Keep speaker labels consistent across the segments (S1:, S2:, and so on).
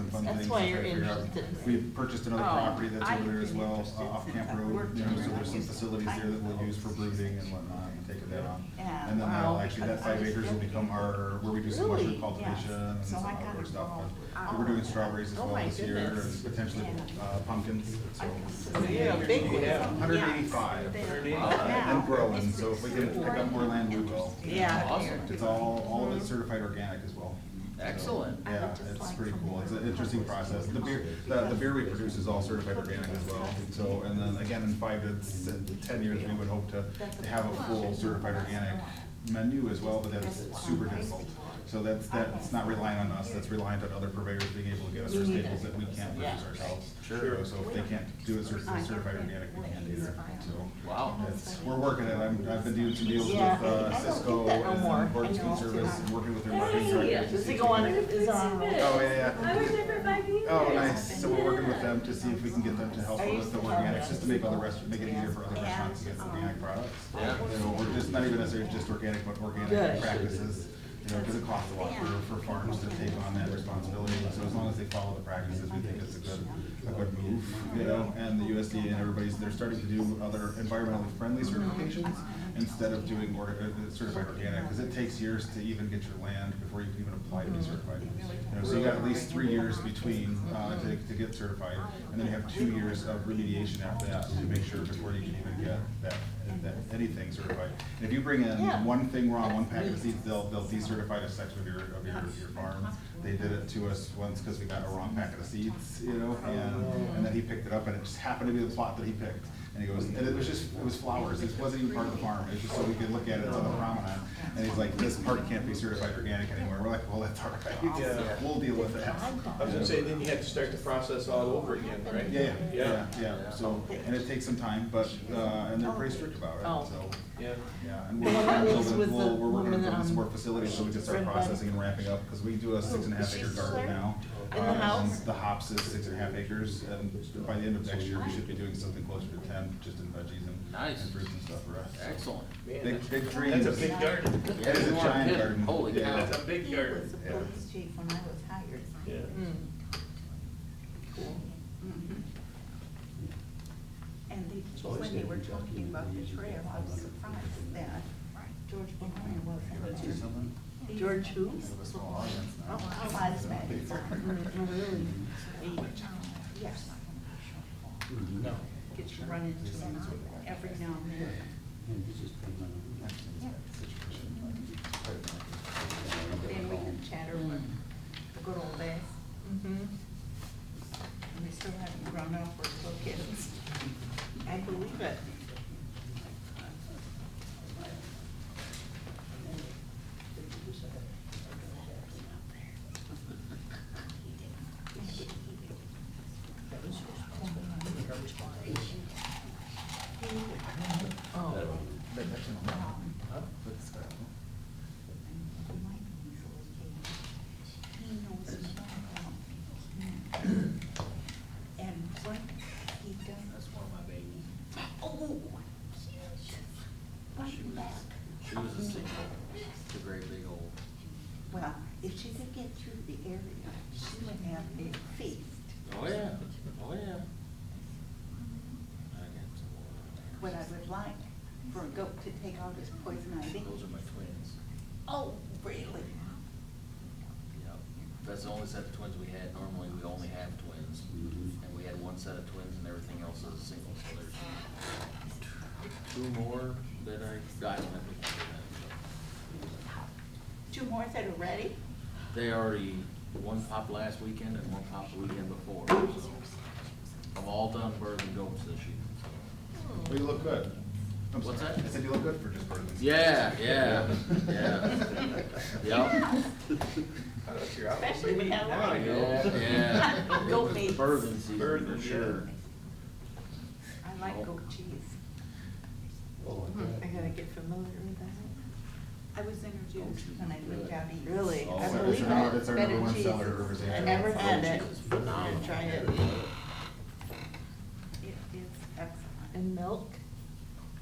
S1: things.
S2: why
S1: to
S2: you're
S1: figure out.
S2: interested in it.
S1: We purchased another
S2: Oh,
S1: property that's
S2: I
S1: over there as
S2: am
S1: well,
S2: interested
S1: uh, off
S2: since
S1: Camp
S2: I've
S1: Road,
S2: worked
S1: you know,
S2: here.
S1: so there's some facilities there that we'll use for brooding and whatnot, and take that on.
S3: Yeah,
S1: And then that'll,
S2: wow,
S1: actually, that
S2: because I
S1: five
S2: was
S1: acres will become our, where we do some
S2: Really?
S1: mushroom cultivation
S3: Yeah.
S1: and
S3: So
S1: some
S3: I got
S1: outdoor stuff.
S3: involved with
S1: But
S3: all
S1: We're doing
S3: of that.
S1: strawberries as
S2: Oh
S1: well
S2: my
S1: this year,
S2: goodness.
S1: and potentially
S3: Yeah.
S1: uh, pumpkins, so.
S2: Yeah, big one.
S1: Hundred eighty-five, Uh, and growing, so if we can pick up more land, we will.
S2: Yeah.
S4: Awesome.
S1: It's all, all of it's certified organic as well. So,
S4: Excellent.
S3: I would
S1: Yeah,
S3: just
S1: it's
S3: like
S1: pretty
S3: from
S1: cool. It's an
S3: there.
S1: interesting process. The beer, the, the beer we produce is all certified organic as well. So, and then again, in five to s- to ten years, we would hope to to have a full certified organic menu as well, but that's super difficult. So that's, that's not relying on us, that's reliant on other purveyors being able to get us our staples that we can't produce ourselves. Sure. So if they can't do a cer- certified organic, we can't either, so.
S4: Wow.
S1: It's, we're working it. I'm, I've been doing some deals with
S2: Yeah, I don't
S1: uh,
S2: get
S1: Cisco
S2: that no more.
S1: and Burns
S2: I know.
S1: Food Service, and working with their marketing directors.
S2: Does it go on, is it on?
S1: Oh, yeah,
S5: I was
S1: yeah.
S5: there for five years.
S1: Oh, nice. So we're working with them to see if we can get them to help
S2: Are you
S1: with the
S2: still-
S1: organics, just to make other rest, make it easier for other restaurants to get organic products.
S4: Yeah.
S1: You know, or just, not even necessarily just organic, but
S2: Good.
S1: organic practices. You know, because it costs a lot for, for farms to take on that responsibility. So as long as they follow the practices, we think it's a good, a good move, you know? And the USDA and everybody's, they're starting to do other environmentally friendly certifications instead of doing or, uh, certified organic, because it takes years to even get your land before you can even apply to be certified. You know, so you got at least three years between, uh, to, to get certified, and then you have two years of remediation after that to make sure before you can even get that, that, anything certified. And if you bring in
S2: Yeah.
S1: one thing wrong, one packet of seeds, they'll, they'll decertify a section of your, of your, your farm. They did it to us once because we got a wrong packet of seeds, you know, and, and then he picked it up and it just happened to be the plot that he picked. And he goes, and it was just, it was flowers, it wasn't even part of the farm, it was just so we could look at it on the promenade. And he's like, this part can't be certified organic anymore, we're like, well, that's all
S6: Yeah.
S1: right, we'll deal with that.
S6: I was gonna say, then you have to start the process all over again, right?
S1: Yeah, yeah, yeah, yeah, so, and it takes some time, but, uh, and they're pretty strict about it,
S2: Oh.
S1: so.
S6: Yeah.
S1: Yeah, and
S2: Well, that
S1: we're,
S2: was with
S1: building- we'll-
S2: the
S1: we're working on
S2: woman
S1: building some
S2: on
S1: more facilities so we can start
S2: Red Bud.
S1: processing and ramping up, because we do a six and a half acre garden now.
S2: Oh, In the
S1: Uh, and
S2: house?
S1: The hops is six and a half acres, and by the end of next year, we should be doing something closer to ten, just in veggies and.
S4: Nice.
S1: And fruits and stuff for us.
S4: Excellent.
S6: Man,
S1: Big, big dreams.
S6: That's a big garden.
S1: It is a
S4: You are
S1: giant
S4: kidding.
S1: garden.
S4: Holy
S1: Yeah.
S4: cow.
S6: That's a big
S3: He was
S6: garden.
S3: the police chief when I was hired.
S6: Yeah.
S2: Mm. Cool.
S3: Mhm. And they, when they were talking about the trail, I was surprised that George Maloney wasn't there. He-
S2: George who?
S1: We have a small audience now.
S3: Oh, I was mad.
S2: Really?
S3: Mm-hmm. Yes.
S7: No.
S2: Get you run into him every now and then.
S7: And he's just putting on-
S3: Then we can chatter with the good old days.
S2: Mhm.
S3: And we still haven't grown up, we're still kids.
S2: I believe it. Oh,
S1: But that's in the- That's the-
S3: He knows me well. And what he does.
S6: one of my babies.
S3: Oh, cute.
S4: She was, she was a single, the great big old.
S3: Well, if she could get through the area, she would have a feast.
S4: Oh, yeah, oh, yeah.
S3: What I would like for a goat to take out is poison ivy.
S4: Those are my twins.
S3: Oh, really?
S4: Yep. That's the only set of twins we had. Normally, we only have twins.
S7: Mhm.
S4: And we had one set of twins and everything else is a single, so there's two more that I, I don't have. to count
S3: Two more that are ready?
S4: them. They already, one popped last weekend and one popped the weekend before, so. I've all done birds and goats this year, so.
S1: Well, you look good. I'm
S4: What's
S1: sorry.
S4: that?
S1: I said you look good for just part of this.
S4: Yeah, yeah, yeah. Yep.
S6: Oh, that's your outfit.
S2: Especially with that
S6: There you go.
S4: Yeah, yeah.
S2: Goat
S4: It was
S2: meat.
S4: Bourbon season
S6: Bourbon,
S4: for
S6: yeah.
S4: sure.
S3: I like goat cheese.
S7: Oh, I
S2: Hmm, Mm-hmm. I
S7: bet.
S2: gotta get familiar with that.
S3: I was introduced when I lived out east.
S2: Really?
S1: Oh,
S2: I
S1: it's our-
S2: believe
S1: it's our-
S2: it.
S1: it's our
S2: Better
S1: number one
S2: cheese.
S1: seller at Rivers
S2: I
S1: Inn.
S2: never had it.
S4: Cheese is
S2: I'm
S4: phenomenal.
S2: gonna try it.
S3: It is excellent.
S2: And milk?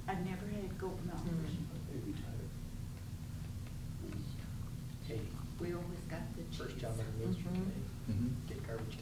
S3: I've never had goat milk.
S2: Mm.
S7: Maybe tired.
S3: We always got the cheese.
S2: Mhm.
S1: Mhm.